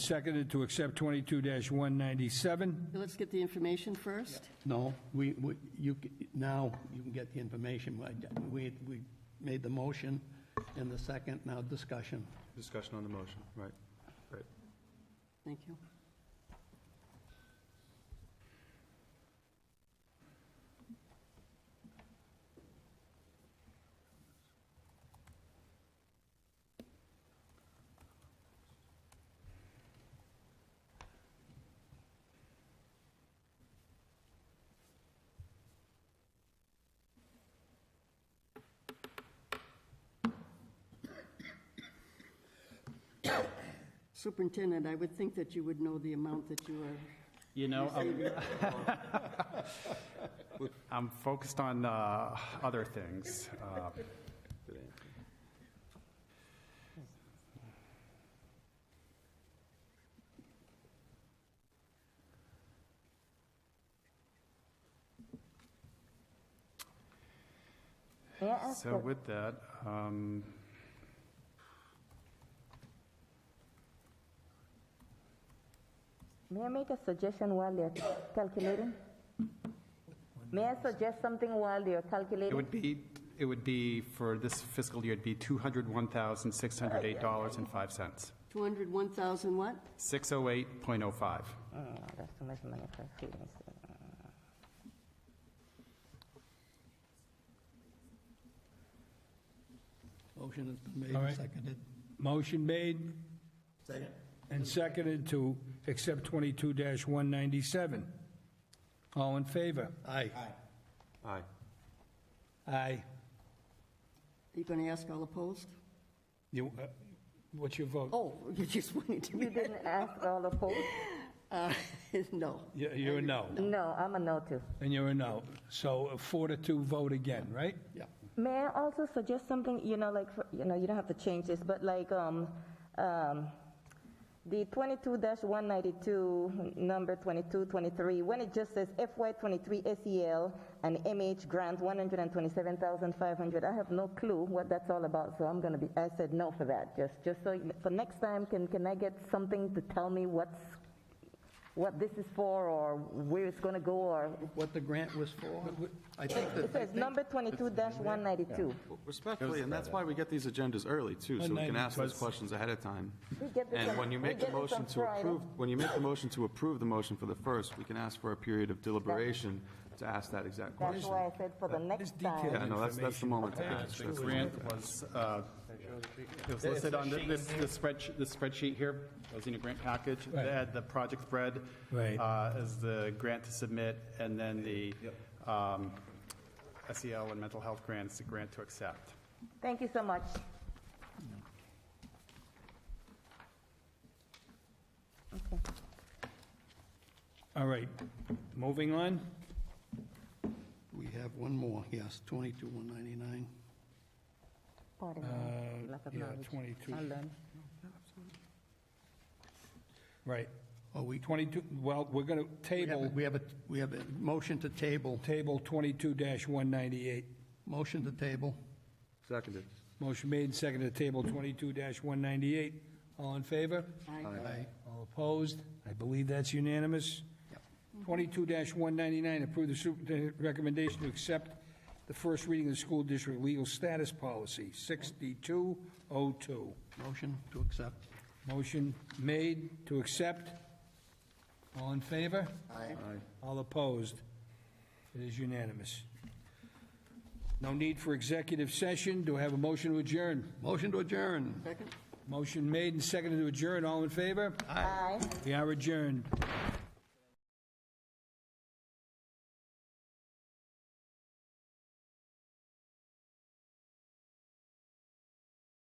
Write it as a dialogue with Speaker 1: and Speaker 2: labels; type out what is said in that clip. Speaker 1: seconded to accept 22-197.
Speaker 2: Let's get the information first.
Speaker 3: No, we, we- you, c- now you can get the information. I- We, we made the motion in the second, now discussion.
Speaker 4: Discussion on the motion, right, right.
Speaker 2: Thank you. Superintendent, I would think that you would know the amount that you are,
Speaker 5: You know, I'm- I'm focused on uh, other things. Uh,
Speaker 6: May I ask
Speaker 5: So
Speaker 6: what-
Speaker 5: with that, um,
Speaker 6: may I make a suggestion while they're calculating? May I suggest something while they're
Speaker 5: it
Speaker 6: calculating?
Speaker 5: would be, it would be, for this fiscal year, it'd be $201,608.05.
Speaker 2: $201,000 what?
Speaker 5: 608.05.
Speaker 6: Mm, That's too much money for students.
Speaker 3: Motion has been made
Speaker 1: All right.
Speaker 3: and seconded.
Speaker 1: Motion made and seconded to accept 22-197. All in favor?
Speaker 3: Aye.
Speaker 4: Aye.
Speaker 1: Aye.
Speaker 2: Are you going to ask all opposed?
Speaker 1: You, uh, what's your vote?
Speaker 2: Oh, you just wanted to
Speaker 6: You
Speaker 2: be,
Speaker 6: didn't ask all opposed?
Speaker 2: uh, no.
Speaker 1: You- You're a no,
Speaker 6: No, I'm a no too.
Speaker 1: and you're a no. So a four to two vote again, right?
Speaker 3: Yeah.
Speaker 6: May I also suggest something, you know, like, for- you know, you don't have to change this, but like, um, um, the twenty-two one ninety-two, number twenty-two, twenty-three, when it just says FY twenty-three SEL and MH grant one hundred and twenty-seven thousand five hundred, I have no clue what that's all about, so I'm gonna be, I said no for that, just, just so, you- for next time, can, can I get something to tell me what's, what this is for, or where it's gonna go, or,
Speaker 3: What the grant was for, I think that.
Speaker 6: it says number twenty-two one ninety-two.
Speaker 4: Respectfully, and that's why we get these agendas early, too, so we can ask those questions ahead of time.
Speaker 6: We get this
Speaker 4: And
Speaker 6: on-
Speaker 4: when you
Speaker 6: we
Speaker 4: make
Speaker 6: get
Speaker 4: the
Speaker 6: this on
Speaker 4: motion to
Speaker 6: Friday.
Speaker 4: approve, when you make the motion to approve the motion for the first, we can ask for a period of deliberation to ask that exact
Speaker 6: That's
Speaker 4: question.
Speaker 6: why I said for the next time.
Speaker 4: Yeah, no, that's, that's the moment to ask.
Speaker 5: The grant was, uh, it was listed on the- this this spreadsheet, this spreadsheet here, it was in a grant package. They had the project spread.
Speaker 1: Right.
Speaker 5: uh, As the grant to submit, and then the um, SEL and mental health grants, the grant to accept.
Speaker 6: Thank you so much.
Speaker 1: All right, moving on.
Speaker 3: We have one more, yes, 22,199.
Speaker 6: Pardon
Speaker 1: Uh,
Speaker 6: my lack of
Speaker 1: yeah,
Speaker 6: knowledge.
Speaker 1: 22.
Speaker 6: I'll learn.
Speaker 1: Right,
Speaker 3: Oh, we,
Speaker 1: 22, well, we're going to
Speaker 3: we have, a-
Speaker 1: table,
Speaker 3: we have a, we have a motion to table,
Speaker 1: table 22-198.
Speaker 3: motion to table.
Speaker 4: Seconded.
Speaker 1: Motion made and seconded to table 22-198. All in favor?
Speaker 3: Aye.
Speaker 1: All opposed? I believe that's unanimous. 22-199, approve the superintendent recommendation to accept the first reading of the school district legal status policy, 6202.
Speaker 3: Motion to accept.
Speaker 1: Motion made to accept. All in favor? Aye. All opposed? It is unanimous. No need for executive session. Do I have a motion to adjourn?
Speaker 3: Motion to adjourn.
Speaker 2: Second?
Speaker 1: Motion made and seconded to adjourn. All in favor?
Speaker 6: Aye.
Speaker 1: We are adjourned.